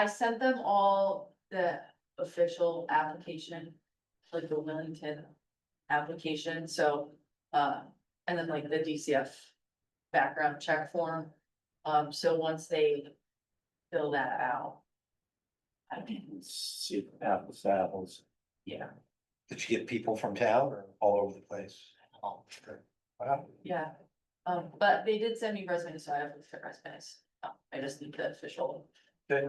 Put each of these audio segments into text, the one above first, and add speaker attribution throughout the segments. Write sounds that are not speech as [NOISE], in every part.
Speaker 1: I sent them all the official application, like the Wellington application, so, uh, and then like the DCF background check form. Um, so once they fill that out. I can,
Speaker 2: See, apples, to apples.
Speaker 1: yeah,
Speaker 3: Did you get people from town or all over the place? Oh, sure. Wow.
Speaker 1: yeah, um, but they did send me resumes, so I have the resumes, Um, I just need the official,
Speaker 3: Okay.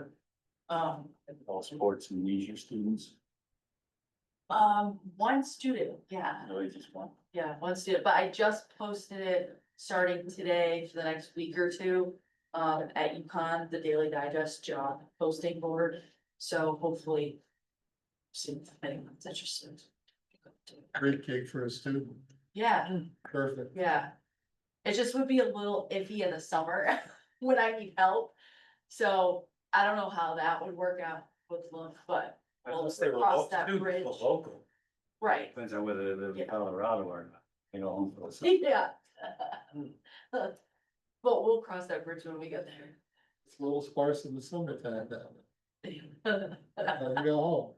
Speaker 1: um.
Speaker 2: All sports and leisure students,
Speaker 1: Um, one student, yeah,
Speaker 2: no, it's just one.
Speaker 1: yeah, one student, but I just posted it starting today for the next week or two. Um, at UConn, the Daily Digest job posting board, so hopefully. See if anyone's interested.
Speaker 4: Great gig for a student,
Speaker 1: Yeah,
Speaker 4: perfect.
Speaker 1: yeah. It just would be a little iffy in the summer [LAUGHS] when I need help. So I don't know how that would work out with love, but, Well, they were Cross all- that students were bridge.
Speaker 3: Local.
Speaker 1: right.
Speaker 2: Depends on whether they live
Speaker 1: Yeah.
Speaker 2: in Colorado or not, you know. home for
Speaker 1: [LAUGHS] Yeah. [LAUGHS] But we'll cross that bridge when we get
Speaker 4: It's a little sparse in the summertime now,
Speaker 1: there. [LAUGHS]
Speaker 4: time to go home.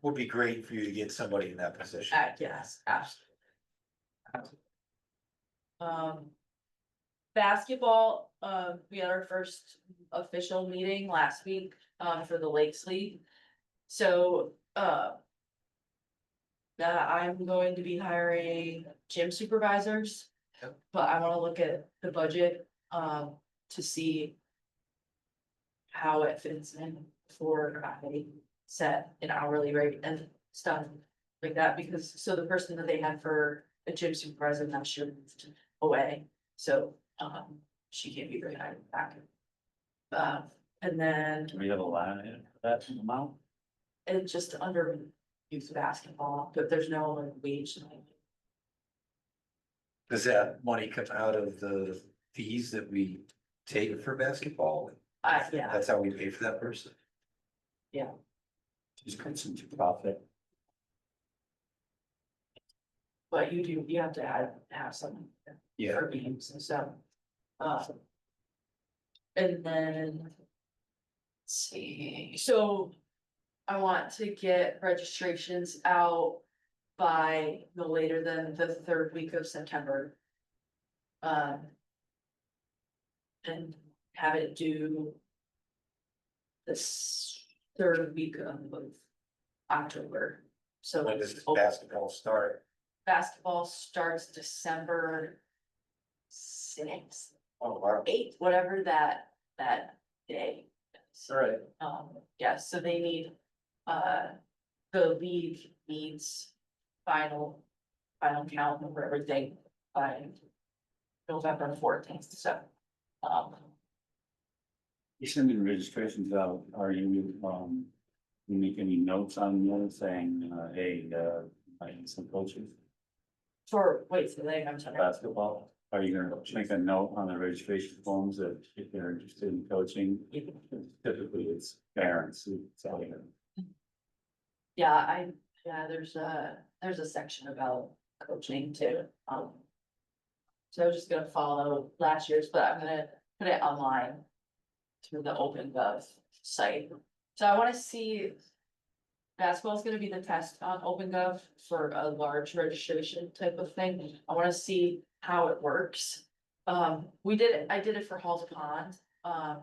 Speaker 3: Would be great for you to get somebody in that position.
Speaker 1: I guess, absolutely. Um. Basketball, um, we had our first official meeting last week, um, for the Lakes League. So, uh. Now I'm going to be hiring gym supervisors.
Speaker 3: Yep.
Speaker 1: But I wanna look at the budget, um, to see. How it fits in for I set an hourly rate and stuff like that, because, so the person that they had for a gym supervisor now she moved away, so, um, she can't be rehired back. Um, and then,
Speaker 2: Do we have a line in for that amount?
Speaker 1: it's just under youth basketball, but there's no like wage. like,
Speaker 3: Does that money come out of the fees that we take for basketball?
Speaker 1: I, yeah,
Speaker 3: That's how we pay for that person.
Speaker 2: Just cuts into profit.
Speaker 1: but you do, you have to have, have some
Speaker 3: Yeah,
Speaker 1: for games and stuff. Um, And then. let's See, so. I want to get registrations out by no later than the third week of September. Um. And have it due. This third week of October, so.
Speaker 3: when does
Speaker 1: open-
Speaker 3: basketball start?
Speaker 1: basketball starts December sixth,
Speaker 3: Oh, wow.
Speaker 1: eighth, whatever that, that day. is.
Speaker 3: All right.
Speaker 1: Um, yeah, so they need, uh, the league needs final, final count over everything by November fourteenth, so, um,
Speaker 2: You sending registrations out, are you, um, you make any notes on them saying, uh, hey, uh, I need some coaches?
Speaker 1: for, wait, so they, I'm sorry.
Speaker 2: basketball? Are you gonna make a note on the registration forms that if they're interested in coaching? Typically, it's parents who tell you.
Speaker 1: Yeah, I, yeah, there's a, there's a section about coaching too, um. So I was just gonna follow last year's, but I'm gonna put it online. Through the open gov site, so I wanna see. Basketball's gonna be the test on open gov for a large registration type of thing, I wanna see how it works. Um, we did, it- I did it for Halls Pond, um,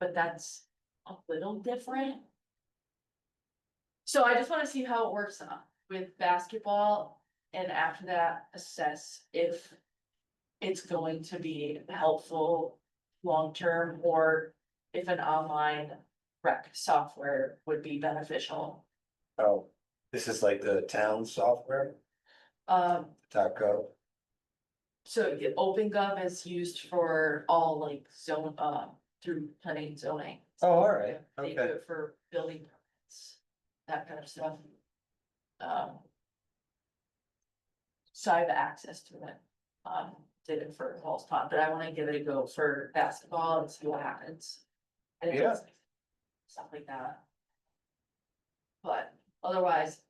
Speaker 1: but that's a little different. So I just wanna see how it works uh, with basketball and after that assess if. It's going to be helpful long-term or if an online rec software would be beneficial.
Speaker 3: Oh, this is like the town software,
Speaker 1: Um,
Speaker 3: dot gov.
Speaker 1: so the OpenGov is used for all like zone, uh, through planning and zoning.
Speaker 3: Oh, all right,
Speaker 1: They do
Speaker 3: okay.
Speaker 1: it for building permits, that kind of stuff. Um. So I have access to it, um, did it for Hall's Pond, but I wanna give it a go for basketball and see what happens. And if it's Stuff like that. But otherwise,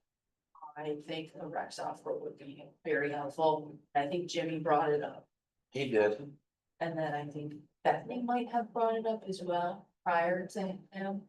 Speaker 1: I think the rec software would be very helpful, I think Jimmy brought it up.
Speaker 3: He did.
Speaker 1: And then I think Bethany might have brought it up as well prior to him.